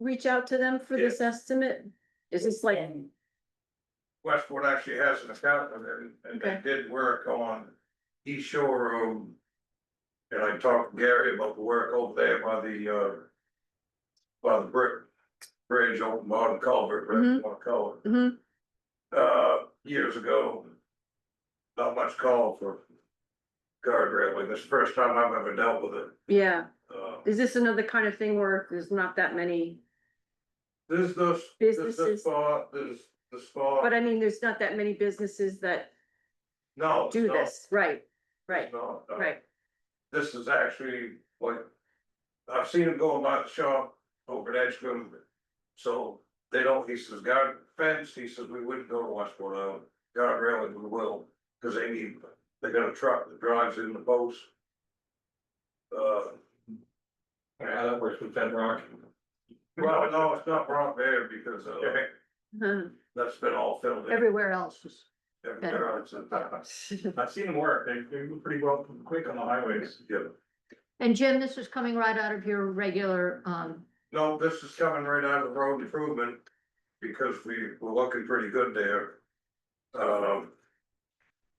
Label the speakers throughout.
Speaker 1: reach out to them for
Speaker 2: Yeah.
Speaker 1: this estimate? Is this like,
Speaker 2: Westwood actually has an accountant and, and they
Speaker 1: Okay.
Speaker 2: did work on East Shore Road. And I talked to Gary about the work over there by the, uh, by the brick bridge on Modern Culvert,
Speaker 1: Mhm.
Speaker 2: Modern Culvert.
Speaker 1: Mhm.
Speaker 2: Uh, years ago, not much call for guardrail, like this is the first time I've ever dealt with it.
Speaker 1: yeah,
Speaker 2: Uh,
Speaker 1: is this another kind of thing where there's not that many,
Speaker 2: There's this, there's this
Speaker 1: Businesses.
Speaker 2: spot, there's the
Speaker 1: but
Speaker 2: spot,
Speaker 1: I mean, there's not that many businesses that
Speaker 2: Oh, no. it's
Speaker 1: do
Speaker 2: not.
Speaker 1: this, right? Right,
Speaker 2: No, no.
Speaker 1: right,
Speaker 2: this is actually like, I've seen them going by the shop over at Edgecombe. So they don't, he says, guard fence, he says, we wouldn't go to Westport Island, guard railing, we will, cause they need, they got a truck that drives in the post. Uh,
Speaker 3: Yeah, that works with bedrock.
Speaker 2: well, no, it's not brought there because uh,
Speaker 1: Huh.
Speaker 2: that's been all filled in.
Speaker 4: Everywhere else is.
Speaker 2: Everywhere else in town.
Speaker 3: I've seen them work, they, they move pretty well, quick on the highways.
Speaker 2: Yeah.
Speaker 4: And Jim, this is coming right out of your regular, um,
Speaker 2: No, this is coming right out of the road improvement, because we were looking pretty good there. Um.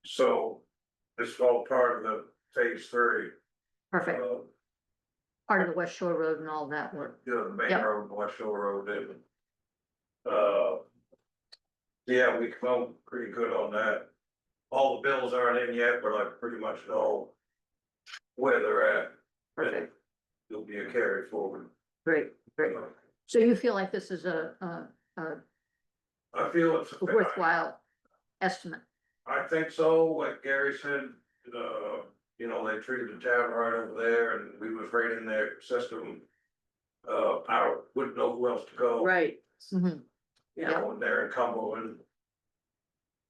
Speaker 2: So, it's all part of the phase three, uh,
Speaker 4: perfect, part of the West Shore Road and all that work.
Speaker 2: you know, the main
Speaker 4: Yeah.
Speaker 2: road, West Shore Road, and. Uh. Yeah, we come pretty good on that. All the bills aren't in yet, but I pretty much know. Where they're at.
Speaker 1: Perfect.
Speaker 2: It'll be a carry forward.
Speaker 1: great, great.
Speaker 4: So you feel like this is a, a, a
Speaker 2: I feel it's.
Speaker 4: worthwhile estimate?
Speaker 2: I think so, like Gary said, uh, you know, they treated the town right over there and we was right in their system. Uh, I wouldn't know who else to go.
Speaker 1: Right,
Speaker 4: Mhm.
Speaker 2: You know, and they're in Cumberland.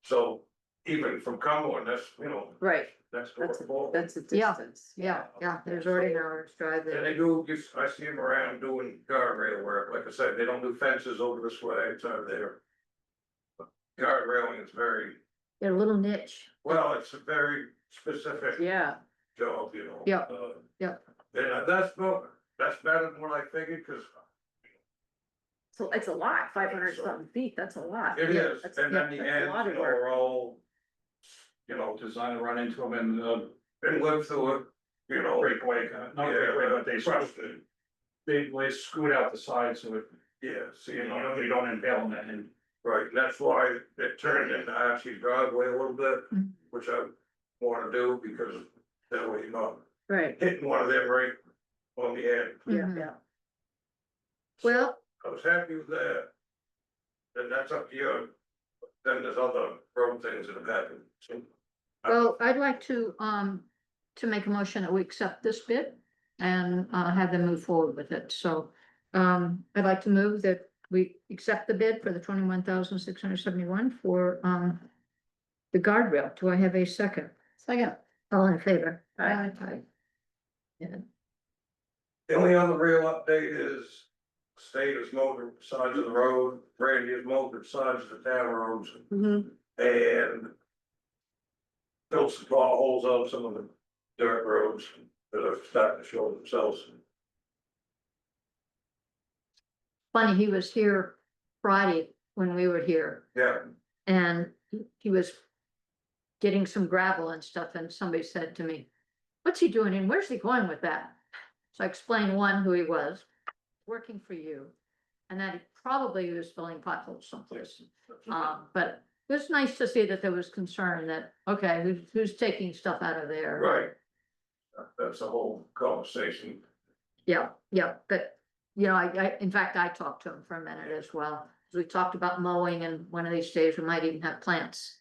Speaker 2: So even from Cumberland, that's, you know,
Speaker 1: right,
Speaker 2: that's.
Speaker 1: that's,
Speaker 2: doable.
Speaker 1: that's a
Speaker 4: Yeah.
Speaker 1: distance.
Speaker 4: Yeah, yeah, there's already an hour's drive
Speaker 2: And
Speaker 4: there.
Speaker 2: they do, just- I see them around doing guardrail work, like I said, they don't do fences over this way, it's over there. Guardrail is very,
Speaker 4: They're a little niche.
Speaker 2: well, it's a very specific.
Speaker 1: Yeah,
Speaker 2: job, you know.
Speaker 4: Yeah,
Speaker 2: uh,
Speaker 4: yeah.
Speaker 2: And that's, not- that's better than what I figured, cause
Speaker 1: so it's a lot, five hundred something feet, that's a lot.
Speaker 2: it
Speaker 1: Ah, Yeah,
Speaker 2: is,
Speaker 1: that's-
Speaker 2: and then the
Speaker 1: yeah, that's a
Speaker 2: ends,
Speaker 1: lot
Speaker 2: you
Speaker 1: of
Speaker 2: know,
Speaker 1: work.
Speaker 2: are all. You know,
Speaker 3: Design to run into them and, uh,
Speaker 2: and live through it, you know.
Speaker 3: breakaway, kind of- not breakaway, but they scoot,
Speaker 2: crushed it.
Speaker 3: they, they scoot out the sides so it,
Speaker 2: Yeah, so
Speaker 3: you
Speaker 2: you
Speaker 3: know,
Speaker 2: know,
Speaker 3: they don't impale on that end.
Speaker 2: right, that's why it turned into actually driveway a little bit,
Speaker 4: Mhm.
Speaker 2: which I wanna do, because that way you're not
Speaker 1: Right,
Speaker 2: hitting one of them right on the end.
Speaker 1: yeah,
Speaker 4: Mhm.
Speaker 1: yeah,
Speaker 4: Well,
Speaker 2: I was happy with that. Then that's up to you, then there's other road things that have happened, so.
Speaker 4: well, I'd like to, um, to make a motion that we accept this bid and, uh, have them move forward with it. So, um, I'd like to move that we accept the bid for the twenty-one thousand six hundred seventy-one for, um, the guardrail. Do I have a second? Second. All in favor?
Speaker 1: Aye.
Speaker 4: Aye. Yeah.
Speaker 2: The only other real update is state is mowing the sides of the road, Randy is mowing the sides of the town roads
Speaker 1: Mhm.
Speaker 2: and filled some potholes on some of the dirt roads that are starting to show themselves.
Speaker 4: Funny, he was here Friday when we were here
Speaker 2: Yeah,
Speaker 4: and he- he was getting some gravel and stuff, and somebody said to me, what's he doing and where's he going with that? So I explained one, who he was, working for you, and that he probably was filling potholes someplace. Um, but it was nice to see that there was concern that, okay, who's, who's taking stuff out of there?
Speaker 2: right. That's the whole conversation.
Speaker 4: Yeah, yeah, but, you know, I, I, in fact, I talked to him for a minute as well, 'cause we talked about mowing and one of these days we might even have plants.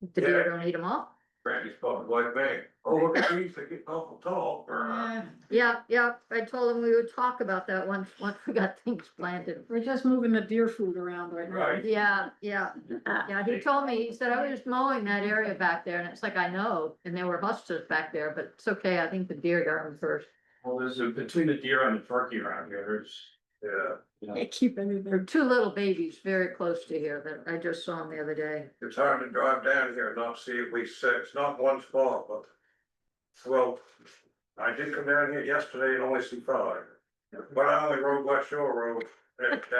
Speaker 4: The deer
Speaker 2: Yeah.
Speaker 4: don't eat them all.
Speaker 2: Randy's probably like, man, oh, look at these, they're getting awful tall.
Speaker 1: Uh.
Speaker 4: Yeah, yeah, I told him we would talk about that once, once we got things planted.
Speaker 5: We're just moving the deer food around right now.
Speaker 2: Right.
Speaker 4: Yeah, yeah,
Speaker 1: Ah,
Speaker 4: yeah, he told me, he said, I was mowing that area back there, and it's like, I know, and there were hustlers back there, but it's okay, I think the deer got them first.
Speaker 3: Well, there's a, between the deer and the turkey around here, there's.
Speaker 2: Yeah.
Speaker 5: They keep everything.
Speaker 4: There are two little babies very close to here that I just saw them the other day.
Speaker 2: It's hard to drive down here and not see at least six, not one spot, but. Well, I did come down here yesterday and only see five, but I only rode West Shore Road, that-